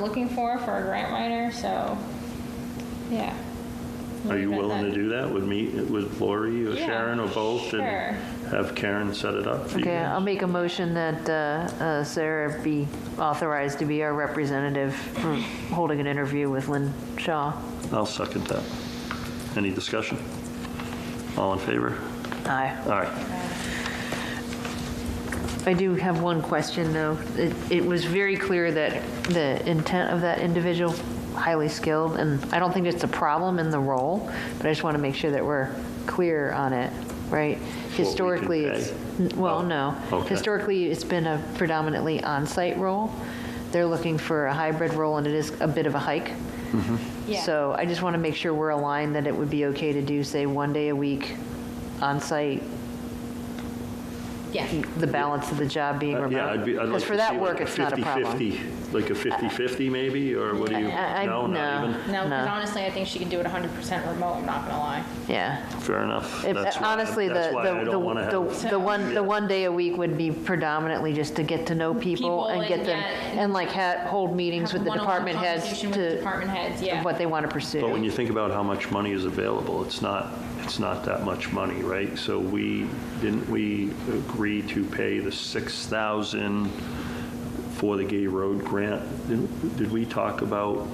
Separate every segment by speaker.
Speaker 1: looking for, for a grant writer, so, yeah.
Speaker 2: Are you
Speaker 1: Leave it at
Speaker 2: willing to
Speaker 1: that.
Speaker 2: do that with me, with Lori or
Speaker 1: Yeah,
Speaker 2: Sharon or both? and
Speaker 1: sure.
Speaker 2: Have Karen set it up for you?
Speaker 3: Okay, I'll
Speaker 2: guys?
Speaker 3: make a motion that uh, uh, Sarah be authorized to be our representative for holding an interview with Lynn Shaw.
Speaker 2: I'll second that. Any discussion? All in favor?
Speaker 3: Aye.
Speaker 2: All right.
Speaker 3: I do have one question, though. It, it was very clear that the intent of that individual, highly skilled, and I don't think it's a problem in the role, but I just want to make sure that we're clear on it, right?
Speaker 2: can
Speaker 3: Historically, it's,
Speaker 2: pay.
Speaker 3: n- well,
Speaker 2: Oh,
Speaker 3: no.
Speaker 2: okay.
Speaker 3: Historically, it's been a predominantly on-site role. They're looking for a hybrid role, and it is a bit of a hike.
Speaker 1: Yeah.
Speaker 3: So I just want to make sure we're aligned that it would be okay to do, say, one day a week on-site
Speaker 1: Yeah,
Speaker 3: the balance of the job being
Speaker 2: Uh,
Speaker 3: remote.
Speaker 2: Yeah, I'd be, I'd like to
Speaker 3: Because
Speaker 2: see
Speaker 3: for that
Speaker 2: like
Speaker 3: work,
Speaker 2: a
Speaker 3: it's not a problem.
Speaker 2: 50/50, like a 50/50 maybe, or what do you?
Speaker 3: I- I-
Speaker 2: No, not
Speaker 3: no.
Speaker 2: even?
Speaker 1: no, because
Speaker 3: No.
Speaker 1: honestly, I think she can do it 100% remote, I'm not gonna lie.
Speaker 3: Yeah.
Speaker 2: Fair enough.
Speaker 3: If-
Speaker 2: That's why-
Speaker 3: Honestly, the,
Speaker 2: That's why I
Speaker 3: the,
Speaker 2: don't want to have,
Speaker 3: the, the one, the one day a week would be predominantly just to get to know people
Speaker 1: People
Speaker 3: and get
Speaker 1: and
Speaker 3: them,
Speaker 1: get-
Speaker 3: and like ha hold meetings
Speaker 1: Have
Speaker 3: with the
Speaker 1: one-on-one
Speaker 3: department heads
Speaker 1: conversation with the
Speaker 3: to,
Speaker 1: Department heads, yeah.
Speaker 3: what they want to
Speaker 2: but when
Speaker 3: pursue.
Speaker 2: you think about how much money is available, it's not, it's not that much money, right? So we, didn't we agree to pay the 6,000 for the Gay Road grant? Didn't- Did we talk about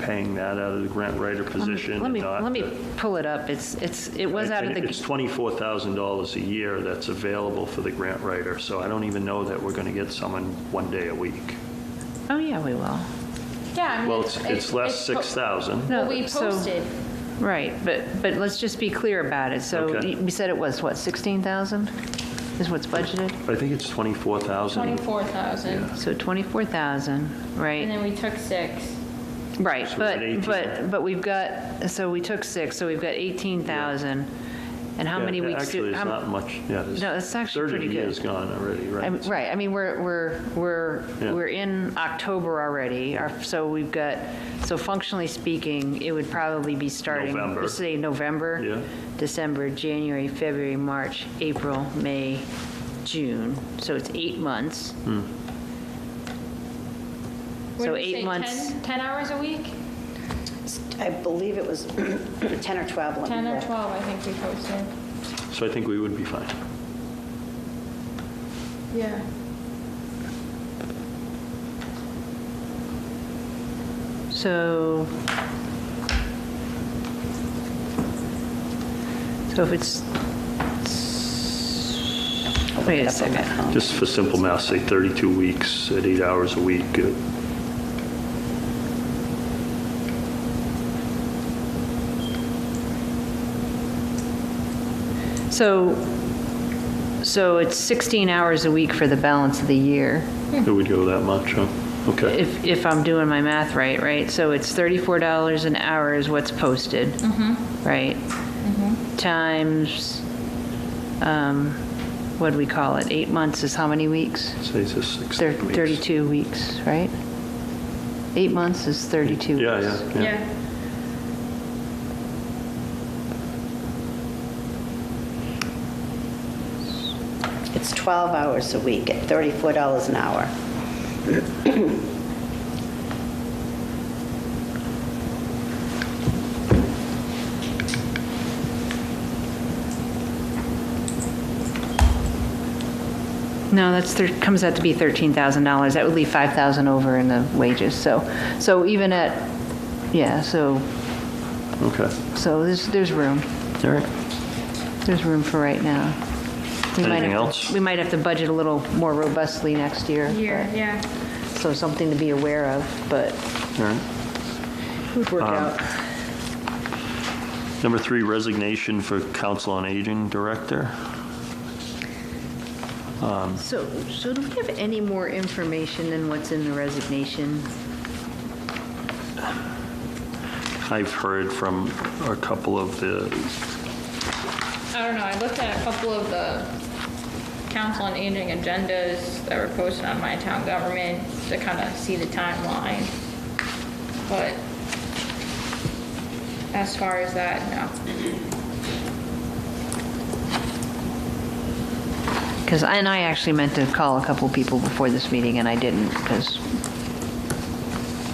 Speaker 2: paying that out of the grant writer position?
Speaker 3: Let
Speaker 2: and
Speaker 3: me,
Speaker 2: not
Speaker 3: let me
Speaker 2: the-
Speaker 3: pull it up. It's, it's, it was
Speaker 2: I
Speaker 3: out of
Speaker 2: think
Speaker 3: the,
Speaker 2: It's $24,000 a year that's available for the grant writer, so I don't even know that we're going to get someone one day a week.
Speaker 3: oh, yeah, we will.
Speaker 1: Yeah, I mean.
Speaker 2: Well, it's, it's less
Speaker 1: po-
Speaker 2: 6,000.
Speaker 1: Well,
Speaker 3: No,
Speaker 1: we
Speaker 3: so-
Speaker 1: posted,
Speaker 3: Right, but, but let's just be clear about it. So
Speaker 2: Okay.
Speaker 3: y- we said it was, what, 16,000 is what's budgeted?
Speaker 2: I think it's 24,000.
Speaker 1: 24,000,
Speaker 3: So 24,000, right?
Speaker 1: and then we took six.
Speaker 3: Right,
Speaker 2: So
Speaker 3: but,
Speaker 2: it's at 18.
Speaker 3: but, but we've got, so we took six, so we've got 18,000. And how
Speaker 2: Yeah,
Speaker 3: many
Speaker 2: yeah,
Speaker 3: weeks? do-
Speaker 2: Actually, it's
Speaker 3: how m-
Speaker 2: not much, yeah. there's
Speaker 3: No, it's actually pretty good.
Speaker 2: 30 years gone already,
Speaker 3: I mean,
Speaker 2: right?
Speaker 3: Right, I mean, we're, we're, we're,
Speaker 2: Yeah.
Speaker 3: we're in October already, our- so we've got, so functionally speaking, it would probably be starting.
Speaker 2: November.
Speaker 3: let's Say November.
Speaker 2: Yeah.
Speaker 3: December, January, February, March, April, May, June, so it's eight months.
Speaker 2: Hmm.
Speaker 1: What
Speaker 3: So
Speaker 1: did we
Speaker 3: eight
Speaker 1: say,
Speaker 3: months.
Speaker 1: 10 10 hours a week?
Speaker 4: I believe it was 10 or 12. let me
Speaker 1: 10 or
Speaker 4: look.
Speaker 1: 12, I think we posted.
Speaker 2: So I think we would be fine.
Speaker 1: Yeah.
Speaker 3: So, so if it's, wait a second.
Speaker 2: Just for simple math, say 32 weeks at eight hours a week. uh,
Speaker 3: So, so it's 16 hours a week for the balance of the year,
Speaker 2: It would go that much, huh? Okay.
Speaker 3: if, if I'm doing my math right, right? So it's $34 an hour is what's posted, right? Times, um, what do we call it? Eight months is how many weeks?
Speaker 2: Say it's just six
Speaker 3: Thir-
Speaker 2: weeks.
Speaker 3: 32 weeks, right? Eight months is 32 weeks.
Speaker 2: Yeah, yeah, yeah.
Speaker 4: It's 12 hours a week at $34 an hour.
Speaker 3: No, that's, thir- comes out to be $13,000. That would leave 5,000 over in the wages, so, so even at, yeah, so,
Speaker 2: Okay.
Speaker 3: so there's, there's room.
Speaker 2: All right.
Speaker 3: There's room for right now. We might
Speaker 2: Anything
Speaker 3: have to-
Speaker 2: else?
Speaker 3: We might have to budget a little more robustly next year.
Speaker 1: Year, yeah.
Speaker 3: but- So something to be aware of, but
Speaker 2: All right.
Speaker 3: it would work
Speaker 2: Um,
Speaker 3: out.
Speaker 2: Number three, resignation for Council on Aging Director.
Speaker 3: So, so do we have any more information than what's in the resignation?
Speaker 2: I've heard from a couple of the,
Speaker 1: I don't know, I looked at a couple of the council on aging agendas that were posted on my town government to kind of see the timeline. But as far as that, no.
Speaker 3: Because, and I actually meant to call a couple people before this meeting, and I didn't, because